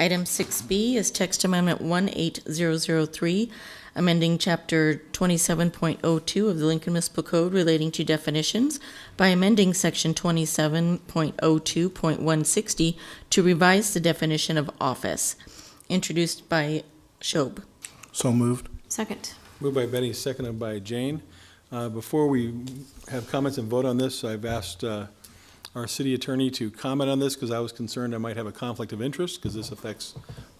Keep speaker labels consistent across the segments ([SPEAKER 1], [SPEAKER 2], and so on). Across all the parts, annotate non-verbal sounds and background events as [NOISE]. [SPEAKER 1] Item 6B is text amendment 18003, amending Chapter 27.02 of the Lincoln Municipal Code relating to definitions by amending Section 27.02.160 to revise the definition of office, introduced by Schob.
[SPEAKER 2] So moved.
[SPEAKER 3] Second.
[SPEAKER 4] Moved by Benny, seconded by Jane. Uh, Before we have comments and vote on this, I've asked uh, our city attorney to comment on this because I was concerned I might have a conflict of interest because this affects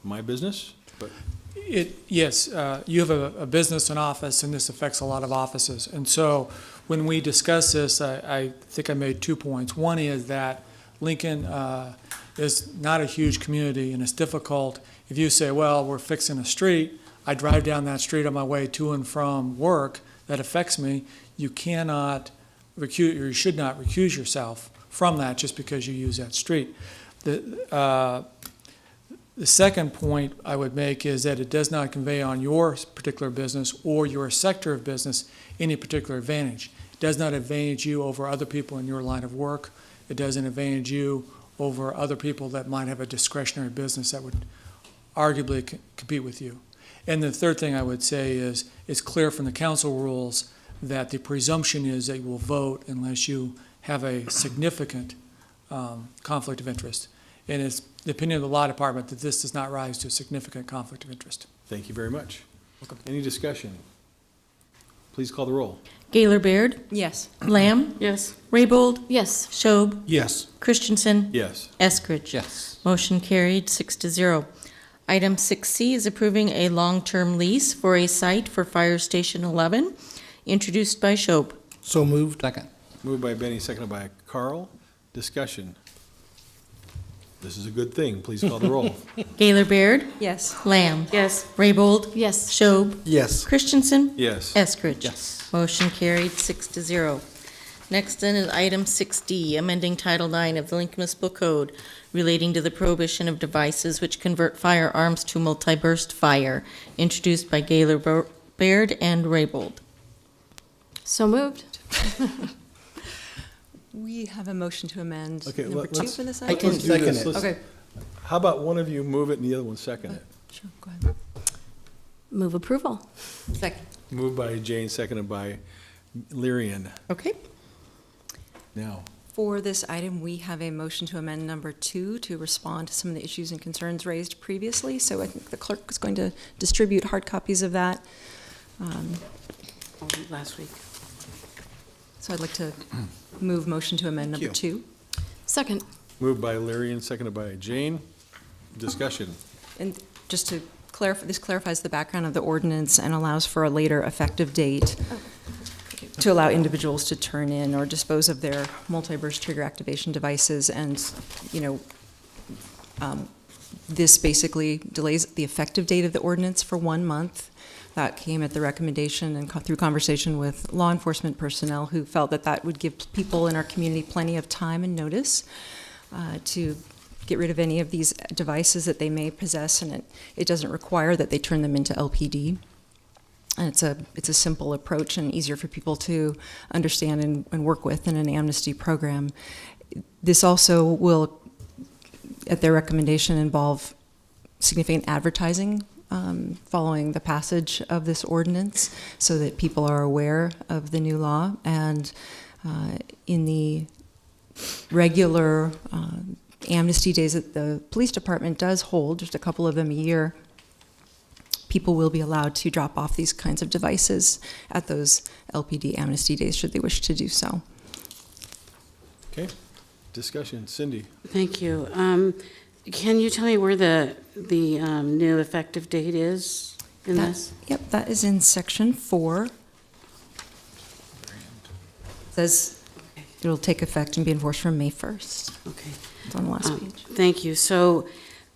[SPEAKER 4] my business. But
[SPEAKER 5] It, yes, uh, you have a, a business and office, and this affects a lot of offices. And so when we discuss this, I, I think I made two points. One is that Lincoln uh, is not a huge community, and it's difficult if you say, well, we're fixing a street. I drive down that street on my way to and from work. That affects me. You cannot recuse, or you should not recuse yourself from that just because you use that street. The, uh, the second point I would make is that it does not convey on your particular business or your sector of business any particular advantage. It does not advantage you over other people in your line of work. It doesn't advantage you over other people that might have a discretionary business that would arguably c- compete with you. And the third thing I would say is it's clear from the council rules that the presumption is that you will vote unless you have a significant um, conflict of interest. And it's the opinion of the law department that this does not rise to a significant conflict of interest.
[SPEAKER 4] thank you very much. Any discussion? Please call the roll.
[SPEAKER 1] Gaylor Baird?
[SPEAKER 3] Yes.
[SPEAKER 1] Lamb?
[SPEAKER 3] Yes.
[SPEAKER 1] Raybold?
[SPEAKER 3] Yes.
[SPEAKER 1] Schob?
[SPEAKER 2] Yes.
[SPEAKER 1] Christensen?
[SPEAKER 4] Yes.
[SPEAKER 1] Eskridge?
[SPEAKER 6] Yes.
[SPEAKER 1] Motion carried, six to zero. Item 6C is approving a long-term lease for a site for Fire Station 11, introduced by Schob.
[SPEAKER 2] So moved.
[SPEAKER 6] Second.
[SPEAKER 4] Moved by Benny, seconded by Carl. Discussion. This is a good thing. Please call the roll.
[SPEAKER 1] Gaylor Baird?
[SPEAKER 3] Yes.
[SPEAKER 1] Lamb?
[SPEAKER 3] Yes.
[SPEAKER 1] Raybold?
[SPEAKER 3] Yes.
[SPEAKER 1] Schob?
[SPEAKER 2] Yes.
[SPEAKER 1] Christensen?
[SPEAKER 4] Yes.
[SPEAKER 1] Eskridge?
[SPEAKER 6] Yes.
[SPEAKER 1] Motion carried, six to zero. Next then is item 6D, amending Title IX of the Lincoln Municipal Code relating to the prohibition of devices which convert firearms to multi-burst fire, introduced by Gaylor Bo- Baird and Raybold.
[SPEAKER 3] So moved. We have a motion to amend
[SPEAKER 4] Okay,
[SPEAKER 3] number
[SPEAKER 4] let-
[SPEAKER 3] two
[SPEAKER 4] let's-
[SPEAKER 3] for this
[SPEAKER 4] let's
[SPEAKER 3] item?
[SPEAKER 4] do
[SPEAKER 2] second
[SPEAKER 4] this.
[SPEAKER 2] it.
[SPEAKER 4] Let's-
[SPEAKER 3] Okay,
[SPEAKER 4] How about one of you move it and the other one second it?
[SPEAKER 3] sure, go ahead. Move approval. Second.
[SPEAKER 4] Moved by Jane, seconded by Lyrian.
[SPEAKER 1] Okay.
[SPEAKER 4] Now,
[SPEAKER 3] For this item, we have a motion to amend number two to respond to some of the issues and concerns raised previously. So I think the clerk is going to distribute hard copies of that. Um,
[SPEAKER 7] last week.
[SPEAKER 3] So I'd like to move motion to amend number two. Second.
[SPEAKER 4] moved by Lyrian, seconded by Jane. Discussion.
[SPEAKER 3] And just to clarify, this clarifies the background of the ordinance and allows for a later effective date to allow individuals to turn in or dispose of their multi-burst trigger activation devices. And, you know, um, this basically delays the effective date of the ordinance for one month. That came at the recommendation and co- through conversation with law enforcement personnel who felt that that would give people in our community plenty of time and notice uh, to get rid of any of these devices that they may possess, and it, it doesn't require that they turn them into LPD. And it's a it's a simple approach and easier for people to understand and, and work with in an amnesty program. This also will, at their recommendation, involve significant advertising um, following the passage of this ordinance, so that people are aware of the new law. And uh, in the regular uh, amnesty days that the police department does hold, just a couple of them a year, people will be allowed to drop off these kinds of devices at those LPD amnesty days should they wish to do so.
[SPEAKER 4] Okay. Discussion. Cindy,
[SPEAKER 7] Thank you. Um, Can you tell me where the, the um, new effective date is in
[SPEAKER 3] That-
[SPEAKER 7] this?
[SPEAKER 3] Yep, that is in section four. Says it'll take effect and be enforced from May 1st.
[SPEAKER 7] Okay.
[SPEAKER 3] It's on the last
[SPEAKER 7] Um,
[SPEAKER 3] page.
[SPEAKER 7] Thank you. So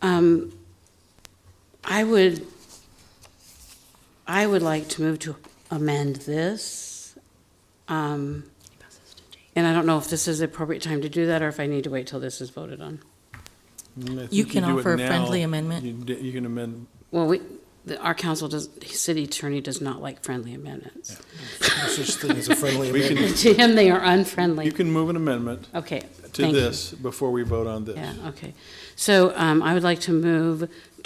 [SPEAKER 7] um, I would, I would like to move to amend this. Um, And I don't know if this is the appropriate time to do that, or if I need to wait till this is voted on.
[SPEAKER 4] mm, I think
[SPEAKER 1] You can
[SPEAKER 4] do it
[SPEAKER 1] offer a friendly
[SPEAKER 4] now.
[SPEAKER 1] amendment.
[SPEAKER 4] You d- You can amend,
[SPEAKER 7] Well, we, the- our council does, the city attorney does not like friendly amendments.
[SPEAKER 2] No such thing as a friendly
[SPEAKER 4] We
[SPEAKER 2] amendment.
[SPEAKER 4] can,
[SPEAKER 7] [LAUGHS] To him, they are
[SPEAKER 4] you
[SPEAKER 7] unfriendly.
[SPEAKER 4] can move an amendment
[SPEAKER 7] Okay.
[SPEAKER 4] to
[SPEAKER 7] thank you.
[SPEAKER 4] this before we vote on this.
[SPEAKER 7] Yeah, okay. So um, I would like to move